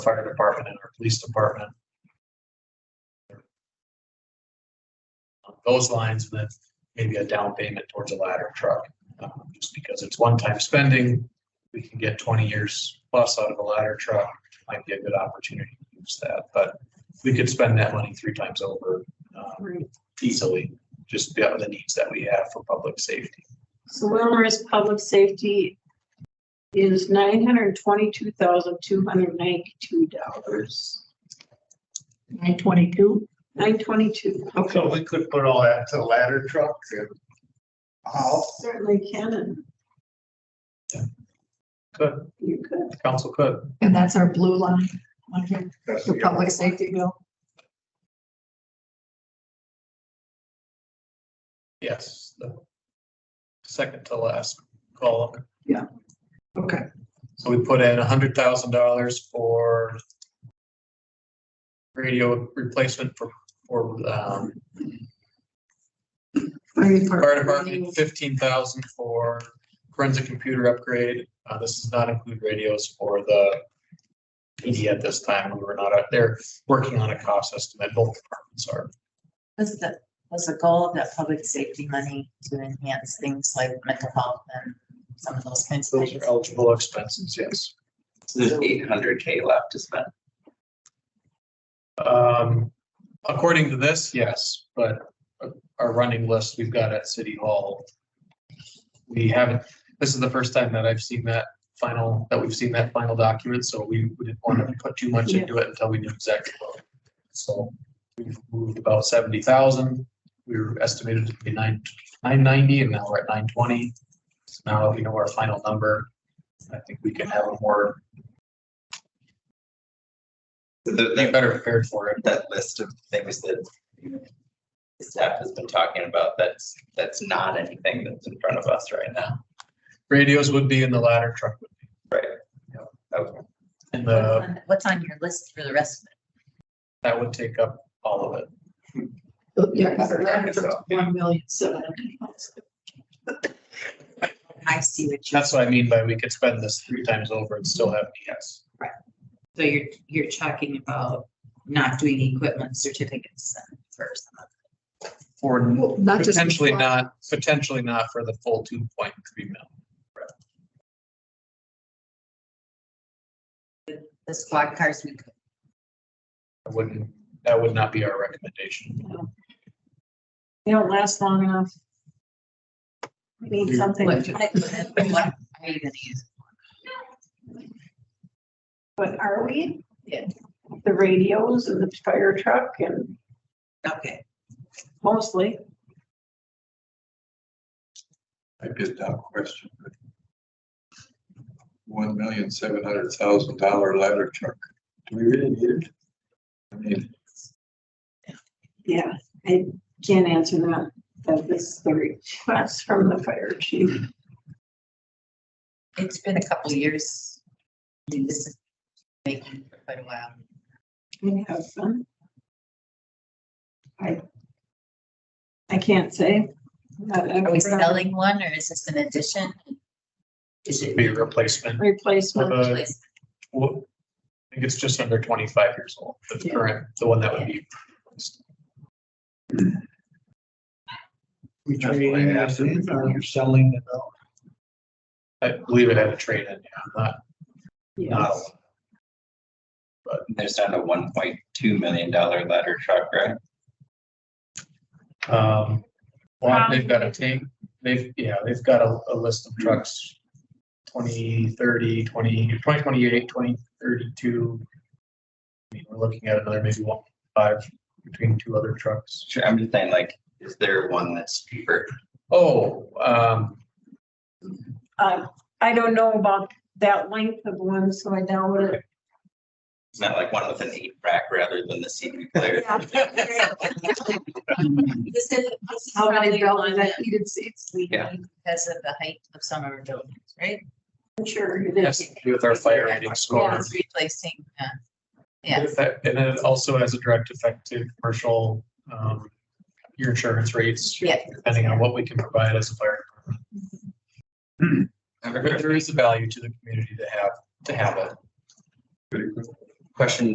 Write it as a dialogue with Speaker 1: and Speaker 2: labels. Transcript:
Speaker 1: fire department and our police department. Those lines, and then maybe a down payment towards a ladder truck, um, just because it's one-time spending. We can get twenty years plus out of a ladder truck, might be a good opportunity to use that, but we could spend that money three times over um,
Speaker 2: Right.
Speaker 1: easily, just be out of the needs that we have for public safety.
Speaker 2: So Wilmer's public safety is nine hundred twenty-two thousand, two hundred ninety-two dollars.
Speaker 3: Nine twenty-two?
Speaker 2: Nine twenty-two.
Speaker 4: So we could put all that to ladder trucks and. Oh,
Speaker 2: Certainly can and
Speaker 1: Could,
Speaker 2: you could.
Speaker 1: council could,
Speaker 3: And that's our blue line, on here,
Speaker 4: that's
Speaker 3: the
Speaker 4: the other-
Speaker 3: public safety bill.
Speaker 1: yes. the Second to last column.
Speaker 3: Okay.
Speaker 1: So we put in a hundred thousand dollars for radio replacement for, for, um, fire department, fifteen thousand for forensic computer upgrade. Uh, this does not include radios for the PD at this time. We were not out there working on a cost estimate. Both departments are.
Speaker 5: Was the, was the goal of that public safety money to enhance things like mental health and some of those kinds of
Speaker 1: Those
Speaker 5: things?
Speaker 1: are eligible expenses, yes.
Speaker 6: So there's eight hundred K left to spend.
Speaker 1: Um, according to this, yes, but our running list we've got at City Hall. We haven't, this is the first time that I've seen that final, that we've seen that final document, so we we didn't want to put too much into it until we knew exactly. what. So we've moved about seventy thousand. We were estimated to be nine, nine ninety and now we're at nine twenty. So now that we know our final number, I think we can have a more,
Speaker 6: So the-
Speaker 1: be
Speaker 6: That,
Speaker 1: better prepared for it.
Speaker 6: that list of things that the staff has been talking about, that's, that's not anything that's in front of us right now.
Speaker 1: Radios would be in the ladder truck would be
Speaker 6: Okay.
Speaker 1: in
Speaker 5: What's
Speaker 1: the
Speaker 5: on- What's on your list for the rest
Speaker 1: that would take up all of it.
Speaker 3: Yeah,
Speaker 2: One million, seven hundred thousand.
Speaker 5: of it? I see what you,
Speaker 1: That's what I mean by we could spend this three times over and still have yes.
Speaker 5: so you're, you're talking about not doing equipment certificates then first.
Speaker 1: For
Speaker 3: Not just.
Speaker 1: potentially not, potentially not for the full two point three mil.
Speaker 5: The squad cars, we could,
Speaker 1: I wouldn't, that would not be our recommendation.
Speaker 2: They don't last long enough. We need something.
Speaker 5: what,
Speaker 2: to-
Speaker 5: what- what are you gonna use?
Speaker 2: But are we?
Speaker 5: Yeah.
Speaker 2: The radios and the fire truck and
Speaker 5: Okay,
Speaker 2: mostly.
Speaker 7: I did not question. it. One million, seven hundred thousand dollar ladder truck. Do we really need it? I mean,
Speaker 2: Yeah, I can't answer that. That is the request from the fire chief.
Speaker 5: it's been a couple years. I mean, This is making for quite a while.
Speaker 2: I have some. I. I can't say.
Speaker 5: Are we selling one or is this an addition?
Speaker 1: This would be a replacement.
Speaker 2: Replacement.
Speaker 1: Uh, Well, I think it's just under twenty-five years old, the
Speaker 2: Yeah.
Speaker 1: current, the one that would be. replaced.
Speaker 4: We
Speaker 7: That's why I
Speaker 4: trade in
Speaker 7: asked
Speaker 4: it,
Speaker 7: if
Speaker 4: or you're selling it out.
Speaker 1: I believe it had a trade in, yeah, not, not. a
Speaker 2: Yes.
Speaker 1: lot.
Speaker 6: There's not a one point two million dollar ladder truck, right?
Speaker 1: Um, well, they've got a tank, they've, yeah, they've got a, a list of trucks. 20, 30, 20, 2028, 2032. I mean, we're looking at another maybe one, five between two other trucks.
Speaker 6: Sure, I'm just saying, like, is there one that's cheaper?
Speaker 1: Oh, um,
Speaker 2: Uh, I don't know about that length of one, so I doubt it.
Speaker 6: It's not like one with an eight rack rather than the CD player.
Speaker 2: Yeah.
Speaker 5: This is, this is
Speaker 2: How
Speaker 5: how
Speaker 2: many
Speaker 5: they go
Speaker 2: dollars
Speaker 5: on
Speaker 2: that
Speaker 5: that
Speaker 2: heated seats?
Speaker 5: we
Speaker 6: Yeah.
Speaker 5: need because of the height of some of our buildings, right?
Speaker 2: I'm sure it
Speaker 1: has
Speaker 2: is.
Speaker 1: to do with our fire rating
Speaker 5: Yeah,
Speaker 1: score.
Speaker 5: it's replacing, uh, yeah,
Speaker 1: If that- And it also has a direct effect to commercial, um, your insurance rates,
Speaker 5: yeah.
Speaker 1: depending on what we can provide as a fire department. But there is a value to the community to have, to have it.
Speaker 7: pretty good.
Speaker 6: question